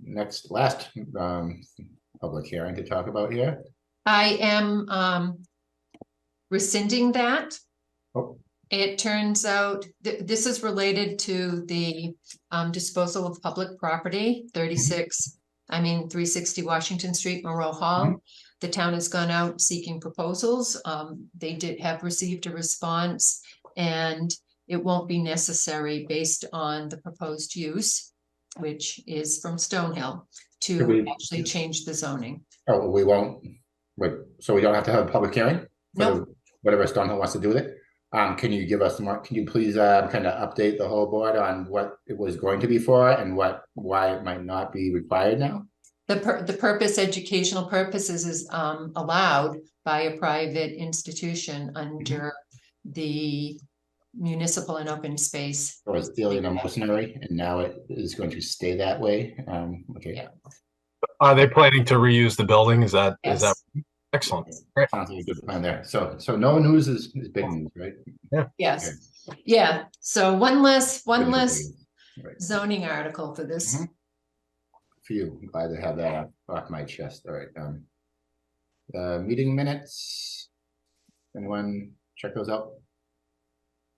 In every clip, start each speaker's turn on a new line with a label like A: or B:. A: next, last, um, public hearing to talk about here?
B: I am um rescinding that.
A: Oh.
B: It turns out, th- this is related to the um disposal of public property, thirty-six. I mean, three sixty Washington Street, Moreau
A: Mm-hmm.
B: Hall. The town has gone out seeking proposals. Um, they did have received a response. And it won't be necessary based on the proposed use, which is from Stonehill.
A: Could
B: To
A: we-
B: actually change the zoning.
A: Oh, we won't, wait, so we don't have to have a public hearing? for
B: No.
A: the- Whatever Stonehill wants to do with it? Um, can you give us more, can you please, uh, kind of update the whole board on what it was going to be for and what, why it might not be required now?
B: The pur- the purpose, educational purposes is um allowed by a private
C: Mm-hmm.
B: institution under the municipal and open space.
A: Or it's still in a mercenary and now it is going to stay that way? Um, okay,
B: Yeah.
C: Are they planning to reuse the building? Is that, is that
B: Yes.
C: excellent?
A: sounds like a good plan there. So, so no news is, is big news, right?
B: Yes, yeah, so one less, one
A: Good
B: less
A: news. Right.
B: zoning article for this.
C: Mm-hmm.
A: Mhm. Phew, I'm glad to have that off- off my chest, all right, um. Uh, meeting minutes. Anyone check those out?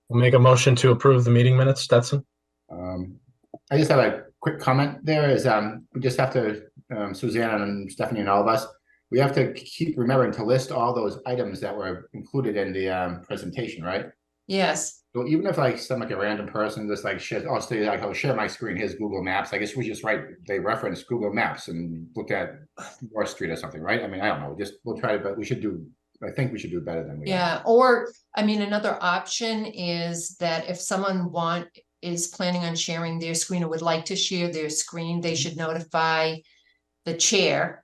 C: We'll Make a motion to approve the meeting minutes, Stetson?
A: Um, I just have a quick comment there is, um, we just have to, um, Suzanne and Stephanie and all of us. We have to keep remembering to list all those items that were included in the, um, presentation, right?
B: Yes,
A: So even if like some like a random person just like shares, I'll say like, I'll share my screen, here's Google Maps, I guess we just write, they reference Google Maps and look at North Street or something, right? I mean, I don't know, just, we'll try to, but we should do, I think we should do better than we. are.
B: yeah, or, I mean, another option is that if someone want, is planning on sharing their screen or would like to share their screen, they should notify the chair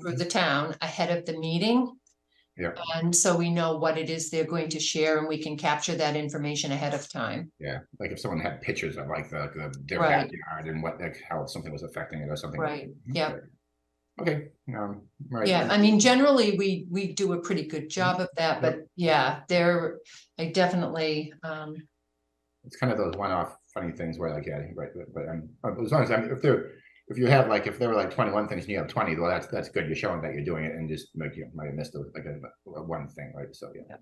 B: through the town ahead of the meeting.
A: Mm-hmm. Yeah.
B: And so we know what it is they're going to share and we can capture that information ahead of time.
A: Yeah, like if someone had pictures of like the, the, their
B: Right.
A: backyard and what, like how something was affecting it or something. Mm-hmm.
B: Right, yeah.
A: Okay, um, right.
B: Yeah, I mean, generally, we, we do a pretty good job of that, but yeah, there, I definitely, um,
A: it's kind of those one-off funny things where like, yeah, right, but, but um, but as long as, I mean, if they're, if you have like, if there were like twenty-one things and you have twenty, well, that's, that's good, you're showing that you're doing it and just like, you might have missed a- like a, a one thing, right, so, yeah.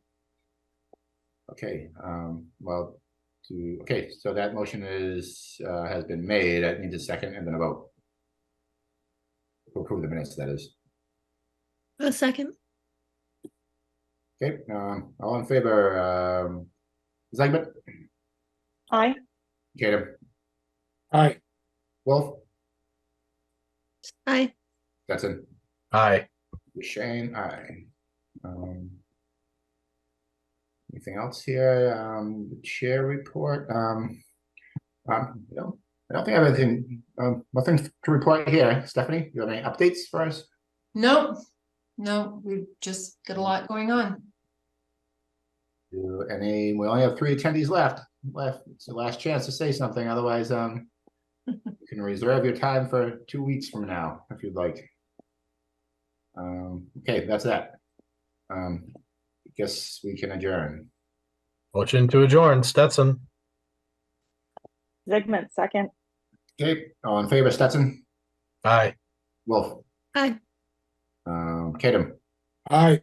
A: Okay, um, well, to, okay, so that motion is, uh, has been made, I need a second and then a vote. To Approve the minutes, that is,
D: A second.
A: okay, um, all in favor, um, Zeigman,
D: Aye.
A: Tatum,
C: Aye.
A: Wolf,
D: Aye.
A: Stetson.
C: Aye.
A: Shane, aye. Um. Anything else here? Um, the chair report, um. Um, I don't, I don't think I have anything, um, nothing to report here. Stephanie, you have any updates for us?
B: no, no, we've just got a lot going on.
A: Do any, we only have three attendees left, left, it's the last chance to say something, otherwise, um. You can reserve your time for two weeks from now, if you'd like. Um, okay, that's that. Um, guess we can adjourn.
C: Motion to adjourn, Stetson?
E: Zigmund, second.
A: Okay, all in favor, Stetson,
C: Aye.
A: Wolf.
D: Aye.
A: Um, Kadam
C: Aye.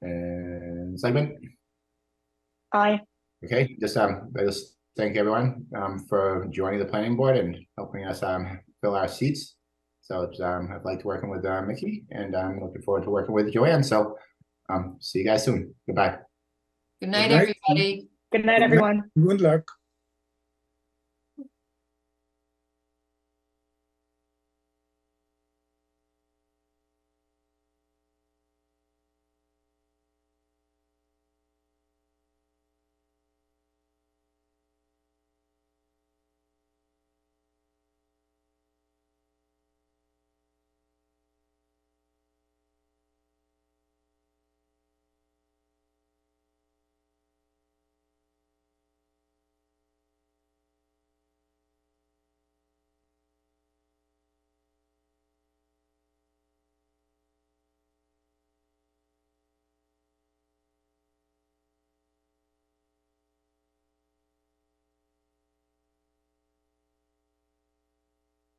A: and Segment,
E: Aye.
A: okay, just, um, I just thank everyone, um, for joining the planning board and helping us, um, fill our seats. So, it's, um, I've liked working with, uh, Mickey, and I'm looking forward to working with Joanne, so, um, see you guys soon, goodbye.
B: Good night,
F: night.
B: everybody.
E: Good night, everyone.
F: Good luck.